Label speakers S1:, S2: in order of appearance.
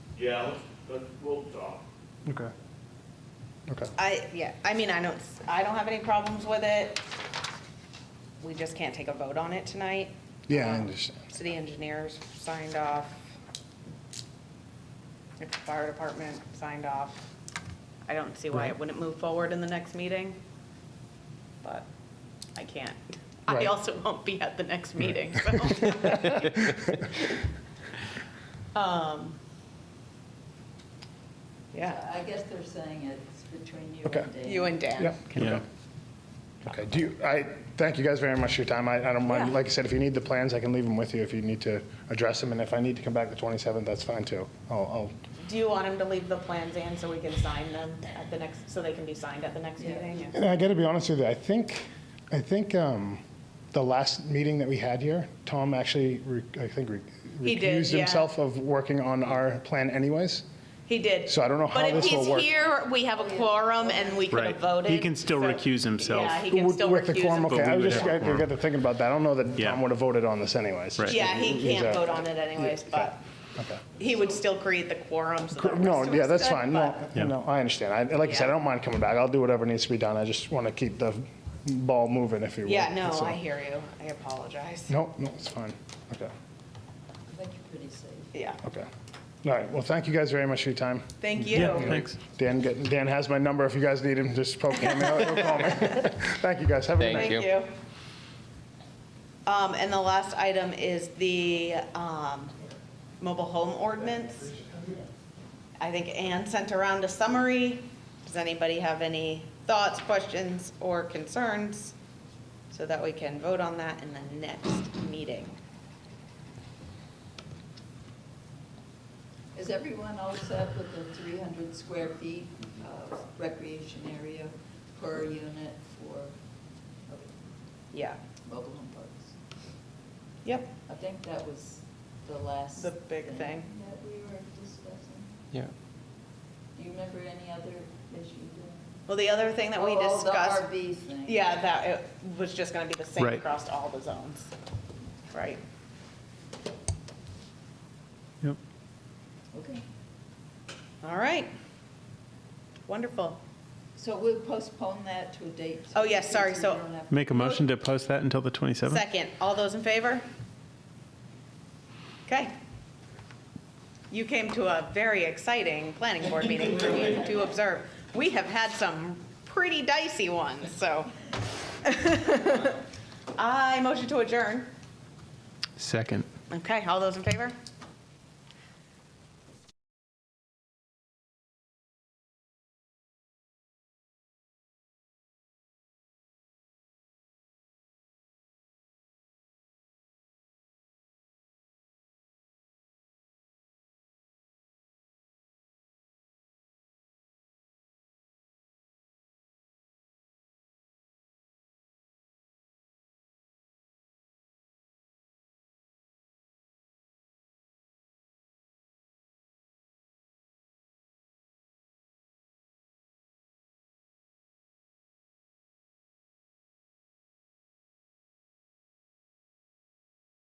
S1: Yeah, let's- but we'll talk.
S2: Okay. Okay.
S3: I, yeah, I mean, I don't, s- I don't have any problems with it. We just can't take a vote on it tonight.
S2: Yeah, I
S3: Um,
S2: understand.
S3: City engineers signed off. The Fire department signed off. I don't see why it
S2: Right.
S3: wouldn't move forward in the next meeting, but I can't. I
S2: Right.
S3: also won't be at the next meeting, so. Um, Yeah,
S4: I guess they're saying it's between you
S2: Okay.
S4: and Dave.
S3: you and Dan.
S2: Yep.
S5: Yeah.
S2: Okay, do you, I, thank you guys very much for your time. I, I don't mind,
S3: Yeah.
S2: like I said, if you need the plans, I can leave them with you if you need to address them. And if I need to come back the 27th, that's fine too. I'll,
S3: Do you want him to leave the plans in so we can sign them at the next, so they can be signed at the next
S4: Yeah.
S3: meeting?
S2: I'll, and I gotta be honest with you, I think, I think, um, the last meeting that we had here, Tom actually, re- I think, re-
S3: He did,
S2: recused
S3: yeah.
S2: himself of working on our plan anyways.
S3: He did.
S2: So I don't know how this will
S3: But
S2: work.
S3: if he's here, we have a quorum and we could
S5: Right.
S3: have voted.
S5: He can still
S3: so-
S5: recuse himself.
S3: Yeah, he can
S2: With-
S3: still
S2: With the
S3: recuse
S2: quorum,
S3: himself.
S2: okay, I
S5: But we
S2: was
S5: would
S2: just, I
S5: have quorum.
S2: got to thinking about that. I don't know that
S5: Yeah.
S2: Tom would have voted on this anyways.
S5: Right.
S3: Yeah, he can't
S2: Exactly.
S3: vote on it anyways, but
S2: Okay.
S3: he would still create the quorum so the rest
S2: No,
S3: of
S2: yeah,
S3: us
S2: that's
S3: could,
S2: fine. No,
S3: but-
S5: Yeah.
S2: no, I understand. I, like I said, I
S3: Yeah.
S2: don't mind coming back. I'll do whatever needs to be done. I just want to keep the ball moving, if you will.
S3: Yeah, no,
S2: That's all.
S3: I hear you. I apologize.
S2: No, no, it's fine. Okay,
S4: I think you're pretty safe.
S3: Yeah,
S2: okay. All right, well, thank you guys very much for your time.
S3: thank you.
S5: Yeah, thanks.
S2: Dan, get- Dan has my number. If you guys need him, just poke him out, he'll call me. Thank you, guys. Have a good
S6: Thank you.
S2: night.
S3: Thank you. Um, and the last item is the, um, mobile home ordinance. I think Ann sent around a summary. Does anybody have any thoughts, questions, or concerns? So that we can vote on that in the next meeting.
S4: Is everyone all set with the 300 square feet of recreation area per unit for
S3: Yeah,
S4: mobile home parks?
S3: yep,
S4: I think that was the last.
S3: The big thing.
S4: That we were discussing.
S6: Yeah.
S4: Do you remember any other issue? Dan?
S3: well, the other thing that we
S4: Oh,
S3: discussed.
S4: The RV thing.
S3: Yeah, that, it was just gonna be the same
S5: Right.
S3: across all the zones, right?
S5: Yep.
S4: Okay.
S3: All right. Wonderful.
S4: So we'll postpone that to a date.
S3: Oh, yes, sorry, so-
S4: we don't have-
S5: Make a motion to post that until the 27th?
S3: Second, all those in favor? Okay. You came to a very exciting planning board meeting for you to observe. We have had some pretty dicey ones, so. I motion to adjourn.
S5: Second.
S3: Okay, all those in favor?